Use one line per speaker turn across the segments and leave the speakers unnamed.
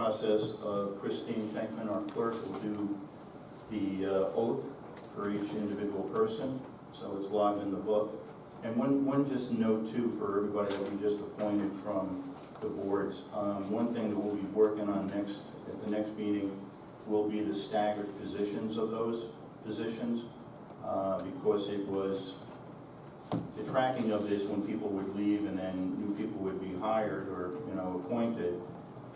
process of Christine Schenkman, our clerk, will do the uh, oath for each individual person, so it's logged in the book. And one, one just note too for everybody that we just appointed from the boards. Um, One thing that we'll be working on next, at the next meeting, will be the staggered positions of those positions, uh, because it was the tracking of this when people would leave and then new people would be hired or, you know, appointed,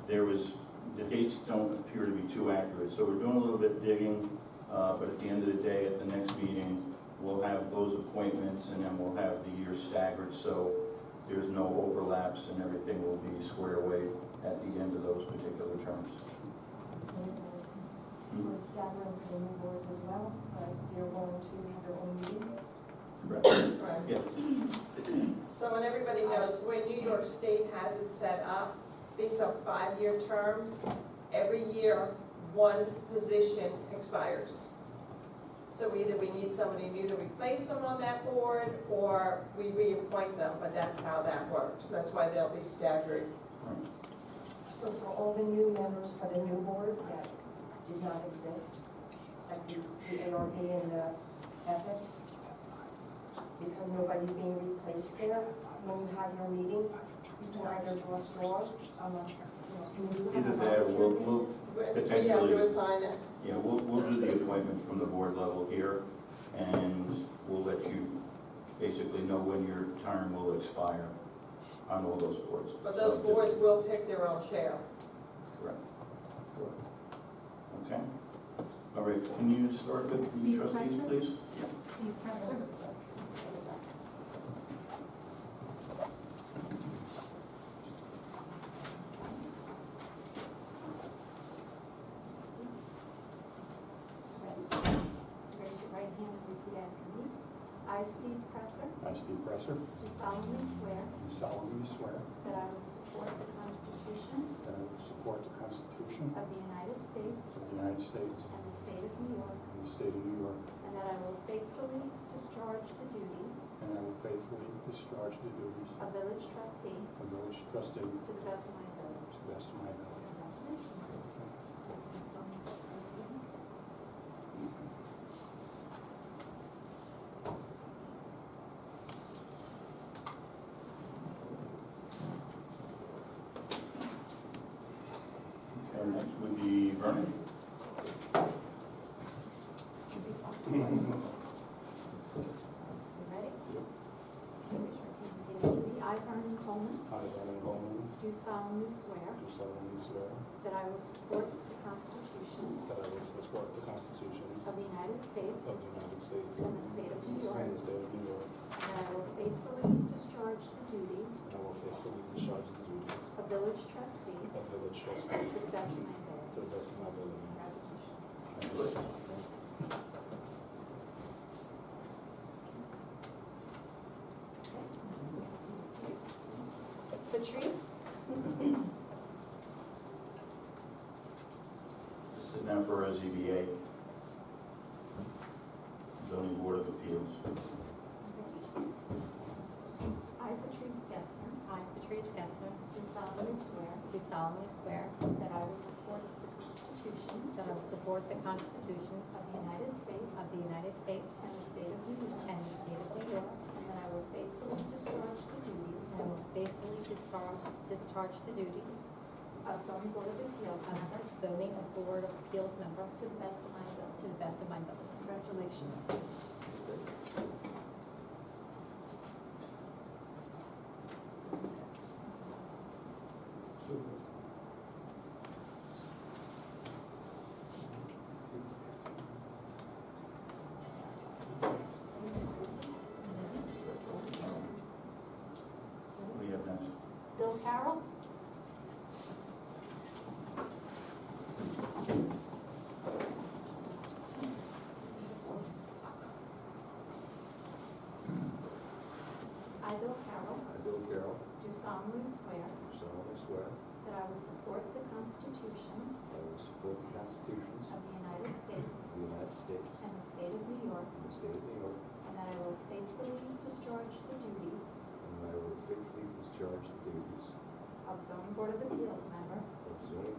there was, the dates don't appear to be too accurate. So we're doing a little bit digging, uh, but at the end of the day, at the next meeting, we'll have those appointments and then we'll have the year staggered, so there's no overlaps and everything will be squared away at the end of those particular terms.
boards, boards gathering for the new boards as well, but they're going to have their own meetings.
Right.
Right.
Yeah.
So, and everybody knows, the way New York State has it set up, these are five-year terms. Every year, one position expires. So either we need somebody new to replace them on that board, or we reappoint them, but that's how that works. That's why they'll be staggered.
So for all the new members for the new boards that did not exist, like the the ARB and the ethics, because nobody's being replaced there, when you have your meeting, you can either draw straws, unless, you know, can you have
Either
a
that or
volunteer
we'll- we'll-
basis?
We have
Potentially.
to assign it.
Yeah, we'll, we'll do the appointment from the board level here, and we'll let you basically know when your term will expire on all those boards.
But those
So just-
boards will pick their own chair.
Correct. Correct. Okay. All right, can you start with the
Steve
trustees,
Presser?
please?
Steve Presser. Raise your right hand and repeat after me. I, Steve Presser,
I, Steve Presser,
do solemnly swear
do solemnly swear
that I will support the constitutions
that I will support the Constitution
of the United States
of the United States
and the state of New York,
and the state of New York,
and that I will faithfully discharge the duties
and I will faithfully discharge the duties
of village trustee
of village trustee to
to the best of my ability.
the best of my ability.
Congratulations.
Okay, next would be Vernon.
You ready? Raise your hand and repeat after me. I, Vernon Coleman,
I, Adam Bowman,
do solemnly swear
do solemnly swear
that I will support the constitutions
that I will support uh, the constitutions
of the United States
of the United States
and the state of New York,
and the state of New York,
and that I will faithfully discharge the duties
and I will faithfully discharge the duties
of village trustee
of village trustee
to the best of my
to
ability.
the best of my ability.
Congratulations. Patrice?
This is now for our ZBA, zoning board of appeals.
I, Patrice Gessner,
I, Patrice Gessner,
do solemnly swear
do solemnly swear
that I will support the constitutions
that I will support the constitutions
of the United States
of the United States
and the state of New York,
and the state of New York,
and that I will faithfully discharge the duties
and I will faithfully discharge, discharge the duties
of zoning board of appeals
of
member
zoning board of appeals member
to the best of my
to
ability.
the best of my ability.
Congratulations.
What do you have next?
Bill Carroll? I, Bill Carroll,
I, Bill Carroll,
do solemnly swear
do solemnly swear
that I will support the constitutions
that I will support the constitutions
of the United States
of the United States
and the state of New York,
and the state of New York,
and that I will faithfully discharge the duties
And I will faithfully discharge the duties
of zoning board of appeals member
of zoning